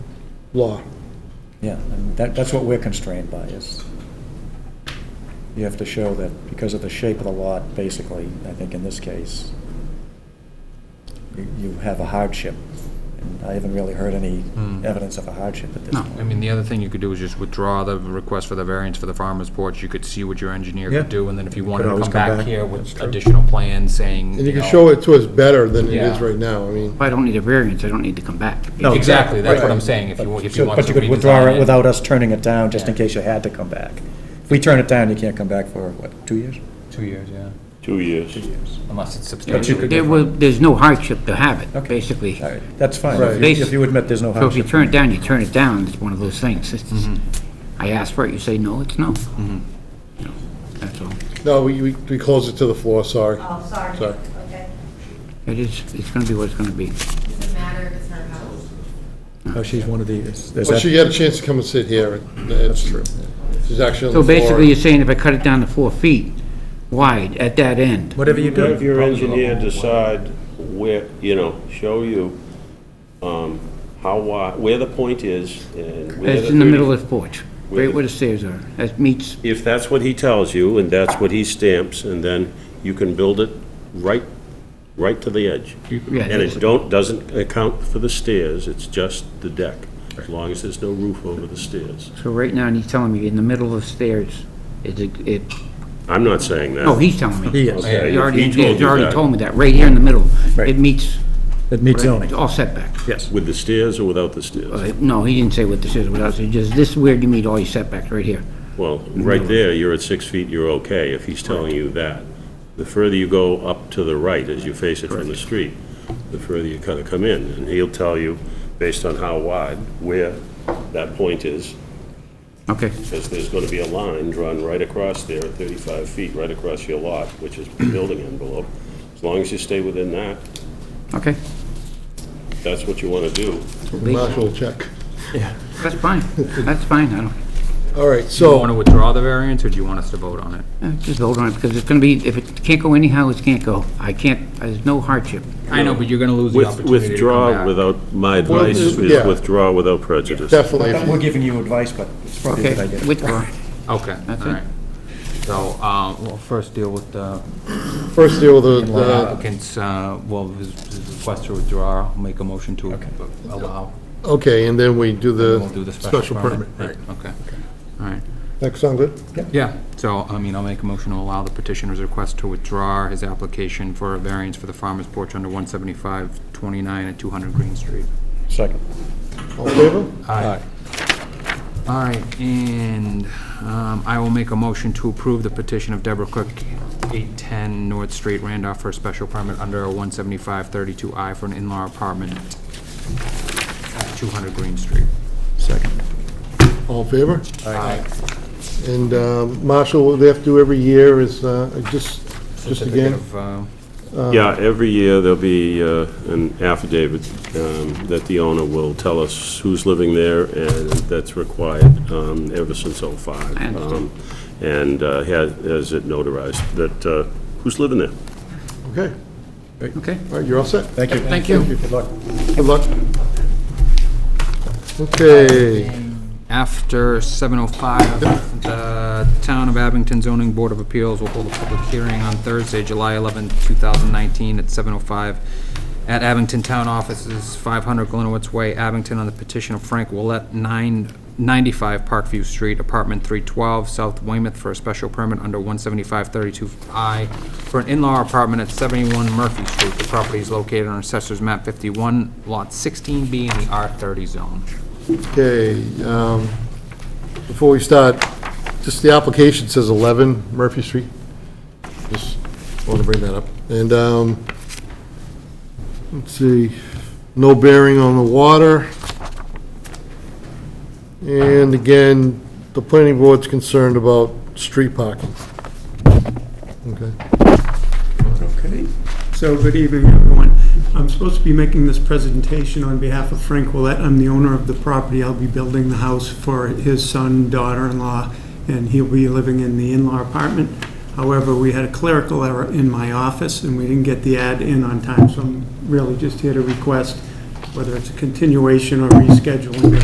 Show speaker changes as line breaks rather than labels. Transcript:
law.
Yeah, and that, that's what we're constrained by, is you have to show that because of the shape of the lot, basically, I think in this case, you, you have a hardship. And I haven't really heard any
Hmm.
evidence of a hardship at this
No,
point.
I mean, the other thing you could do is just withdraw the request for the variance for the farmer's porch. You could see what your engineer
Yeah.
could do, and then if you wanted to
always
come
come
back
back.
here with additional plans saying,
And you can
know-
show it to us better than it is
Yeah.
right now, I mean.
If I don't need a variance, I don't need to come back.
No,
Exactly, that's what
Right.
I'm saying, if you, want- if you
So-
want
But
to
you could withdraw
redesign
it
it.
without us turning it down, just in
Yeah.
case you had to come back. If we turn it down, you can't come back for, what, two years?
Two years, yeah,
Two years.
unless it's
But you
substantial.
could-
There will, there's no hardship to have it,
Okay.
basically.
All right, that's fine.
Right.
If you- if you admit there's no
So if you
hardship.
turn it down, you turn it down, it's one of those things. It's- I ask for it, you say no, it's no. You know, That's all.
No, we, we- we closed it to the floor, sorry.
Oh, sorry.
Sorry.
Okay.
It is, it's gonna be what it's gonna be.
Doesn't matter if it's her house.
Oh, she's one of the, is is
But she
that,
had a chance to come and sit here. That's true. She's actually
So
on the floor.
basically, you're saying if I cut it down to four feet wide at that end,
whatever you do.
Have your engineer decide where, you know, show you um, how, wi- where the point is and where
that's in the middle
30
of the porch,
where
right
the-
where the stairs are, that meets,
If that's what he tells you and that's what he stamps, and then you can build it right, right to the edge.
yeah.
And it don't, doesn't account for the stairs, it's just the deck, as long as there's no roof over the stairs.
So right now, he's telling me in the middle of stairs, it, it,
I'm not saying that.
no, he's telling me.
He is.
Okay,
You already,
he told
you
you
already
that.
told me that, right here in the middle.
Right.
It meets,
It meets
it's
zoning,
all setback.
yes.
With the stairs or without the stairs?
Uh, No, he didn't say what this is, what else, he just, this is where you meet all your setbacks, right here.
Well, right there, you're at six feet, you're okay, if he's telling you that. The further you go up to the right as you face it from the street, the further you kind of come in. And he'll tell you, based on how wide, where that point is,
Okay,
because there's going to be a line drawn right across there, 35 feet, right across your lot, which is the building envelope. As long as you stay within that,
okay,
that's what you want to do.
Marshall will check.
that's fine, that's fine, I don't,
All right,
Do you want
so,
to withdraw the variance, or do you want us to vote on it?
eh, just hold on, because it's gonna be, if it can't go anyhow, it can't go. I can't, there's no hardship.
I know, but you're gonna lose the
With-
opportunity to come
Withdraw
back.
without, my
Well, uh,
advice is
yeah.
withdraw without prejudice.
definitely.
We're giving you advice, but it's probably a
Okay,
good idea.
withdraw.
Okay, all
That's it.
right. So, uh, we'll first deal with the
First deal with the, uh,
applicant's, uh, well, his his request to withdraw, I'll make a motion to allow.
okay, and then we do
We'll do
the special permit.
Right, Okay, all right.
That sound good?
Yeah, so, I mean, I'll make a motion to allow the petitioner's request to withdraw his application for a variance for the farmer's porch under 175-29 at 200 Green Street.
Second.
All in favor?
Aye. All right, and um, I will make a motion to approve the petition of Deborah Cook, 810 North Street, Randolph, for a special permit under 175-32I for an in-law apartment at 200 Green Street. Uh,
Second.
All in favor? And um, Marshall, what they have to do every year is, uh, just, just
Certificate
again,
of, uh,
Yeah, every year there'll be uh, an affidavit um, that the owner will tell us who's living there, and that's required um, ever since '05.
I understand.
And uh, has has it notarized, that, uh, who's living there?
okay,
Okay,
all right, you're all set.
Thank you.
Thank you.
Good luck.
Good luck. Okay,
After 7:05, the Town of Abington Zoning Board of Appeals will hold a public hearing on Thursday, July 11, 2019, at 7:05 at Abington Town Offices, 500 Glenowitz Way, Abington, on the petition of Frank Willett, 995 Parkview Street, Apartment 312, South Weymouth, for a special permit under 17532I for an in-law apartment at 71 Murphy Street. The property is located on Assessor's Map 51, Lot 16B in the R30 zone.
okay, um, before we start, just the application says 11 Murphy Street. Just want to bring that up. And, um, let's see, no bearing on the water. And again, the planning board's concerned about street parking. Okay.
Okay, so good evening, everyone. I'm supposed to be making this presentation on behalf of Frank Willett. I'm the owner of the property. I'll be building the house for his son, daughter-in-law, and he'll be living in the in-law apartment. However, we had a clerical error in my office, and we didn't get the ad in on time, so I'm really just here to request, whether it's a continuation or rescheduling,